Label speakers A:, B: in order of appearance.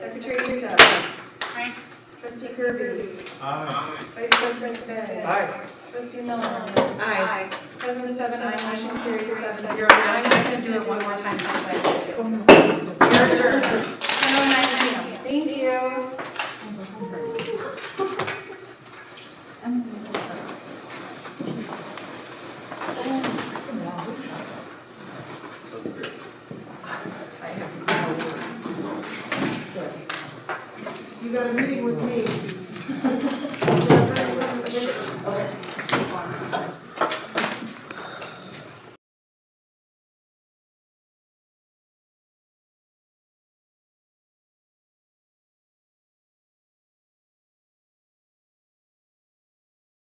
A: Trustee Dodd. Trustee Kirby.
B: Aye.
A: Vice President Bennett.
B: Aye.
A: Trustee Miller.
C: Aye.
A: President Steven, I motion carries seven zero
C: I'm
A: nine.
C: just gonna do it one more time, because I did two.
A: Your turn. Thank you. You got a meeting with me.